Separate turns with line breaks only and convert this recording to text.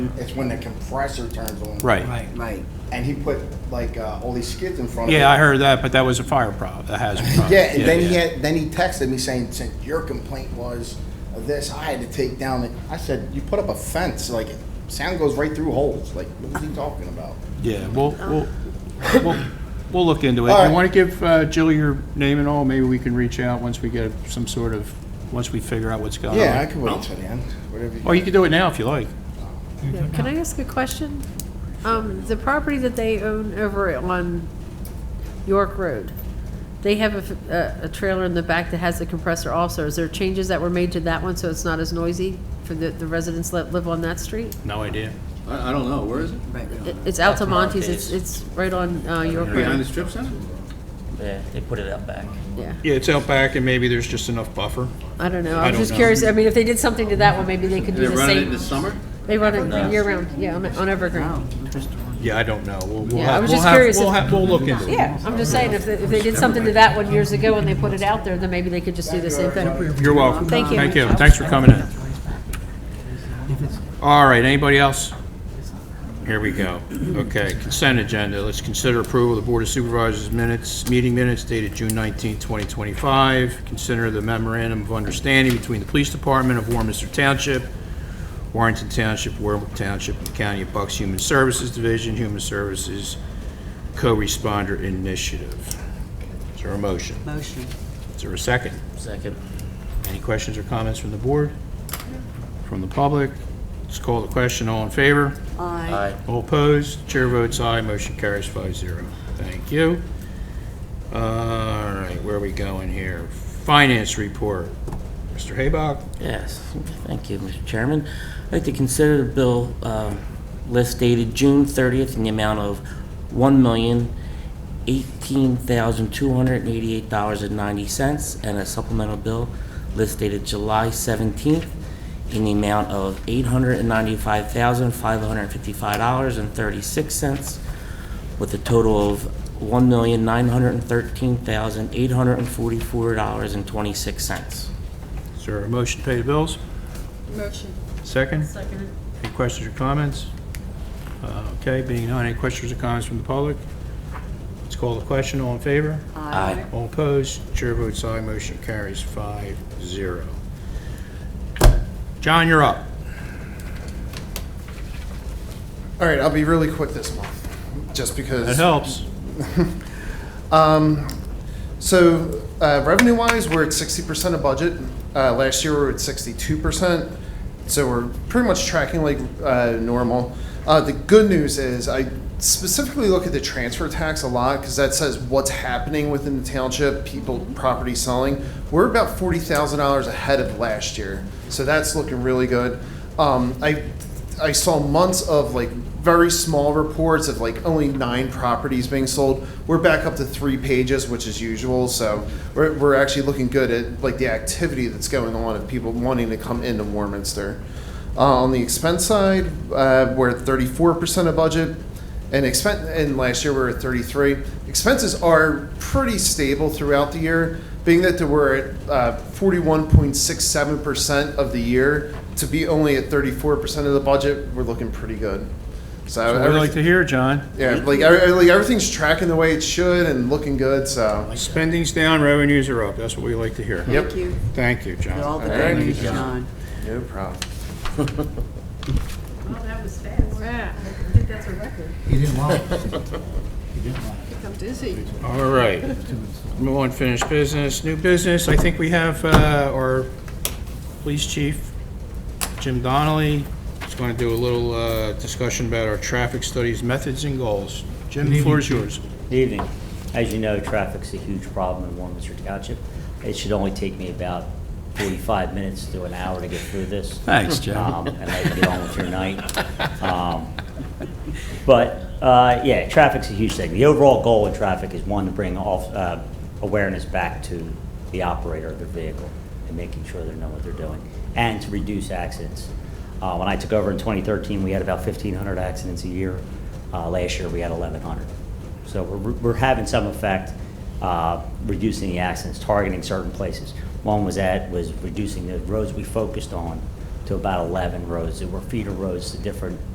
It's when the compressor turns on.
Right.
Right.
And he put like uh, all these skids in front of it.
Yeah, I heard that, but that was a fire problem, a hazard problem.
Yeah, and then he
yeah.
had, then he texted me saying, since your complaint was of this, I had to take down the, I said, you put up a fence, like, sound goes right through holes, like, what was he talking about?
Yeah, we'll, we'll, we'll, we'll look into it.
All right.
You want to give uh, Jill your name and all? Maybe we can reach out once we get some sort of, once we figure out what's going on.
Yeah, I could wait until the end, whatever
Or you
you.
can do it now if you like.
Yeah, Can I ask a question? Um, the property that they own over on York Road, they have a f- a, a trailer in the back that has a compressor also. Is there changes that were made to that one so it's not as noisy for the, the residents that live on that street?
Uh,
No idea.
I, I don't know, where is it?
It- It's Altamontes, it's, it's right on, uh, York
Behind the
Road,
strip center?
Yeah, they Eh, put it out back.
yeah.
Yeah, it's out back and maybe there's just enough buffer.
I don't know,
I
I'm
don't
just
know.
curious, I mean, if they did something to that one, maybe they could do
They're
the
running it in the
same.
summer?
They run
No.
it year round, yeah, on, on Evergreen.
Yeah, I don't know. We'll- we'll
Yeah,
have-
I was
we'll
just
have-
curious
We'll
if-
have, we'll look into it.
Yeah, I'm just saying, if, they- if they did something to that one years ago and they put it out there, then maybe they could just do the same thing.
You're welcome.
Thank you.
Thank you. Thanks for coming in. All right, anybody else? Here we go. Okay, consent agenda. Let's consider approval of the Board of Supervisors minutes, meeting minutes dated June 19, 2025. Consider the memorandum of understanding between the Police Department of Warminster Township, Warrenton Township, Warwick Township, and the County of Bucks Human Services Division, Human Services Co-Responder Initiative. Is there a motion?
Motion.
Is there a second?
Second.
Any questions or comments from the board? From the public? Let's call the question. All in favor?
Aye.
Aye.
All opposed? Chair votes aye. Motion carries five zero. Thank you. All right, where are we going here? Finance report. Mr. Haybuck?
Yes, thank you, Mr. Chairman. I'd like to consider the bill uh, list dated June 30th in the amount of $1,018,288.90 and a supplemental bill list dated July 17th in the amount of $895,555.36 with a total of $1,913,844.26.
Is there a motion to pay the bills?
Motion.
Second? Second. Any questions or comments? Uh, Okay, being none, any questions or comments from the public? Let's call the question. All in favor?
Aye.
All opposed? Chair votes aye, motion carries five zero. John, you're up.
All right, I'll be really quick this month, just
That
because.
helps.
So uh, revenue-wise, we're at sixty percent of budget. Uh, last year, we were at sixty-two percent. So we're pretty much tracking like uh, normal. Uh, the good news is I specifically look at the transfer tax a lot because that says what's happening within the township, people, property selling. We're about forty thousand dollars ahead of last year, so that's looking really good. Um, I I saw months of like very small reports of like only nine properties being sold. We're back up to three pages, which is usual. So we're, we're actually looking good at like the activity that's going on of people wanting to come into Warminster. Uh, on the expense side, uh, we're at 34% of budget. And expense, and last year we were at 33. Expenses are pretty stable throughout the year, being that they were at uh, 41.67% of the year. To be only at 34% of the budget, we're looking pretty good. So,
That's what we
everyth-
like to hear, John.
yeah, like, every- like everything's tracking the way it should and looking good. So,
Spending's down, revenues are up. That's what we like to hear.
Yep.
Thank you
Thank you,
for all
John.
the
All right.
good news, John.
no problem.
Well, that was fast. Wow, I think that's a record.
All right. No unfinished business, new business. I think we have uh, our police chief, Jim Donnelly, is going to do a little uh, discussion about our traffic studies, methods, and goals. Jim, the floor is yours.
Good evening. As you know, traffic's a huge problem in Warminster Township. It should only take me about 45 minutes to an hour to get through this.
Thanks, Joe.
Um, And I can get on with your night. Um, But, uh, yeah, traffic's a huge thing. The overall goal in traffic is, one, to bring off- uh, awareness back to the operator of the vehicle and making sure they know what they're doing, and to reduce accidents. Uh, When I took over in 2013, we had about 1,500 accidents a year. Uh, Last year, we had 1,100. So we're we're having some effect, uh, reducing the accidents, targeting certain places. One was at, was reducing the roads we focused on to about 11 roads. There were feeder roads to different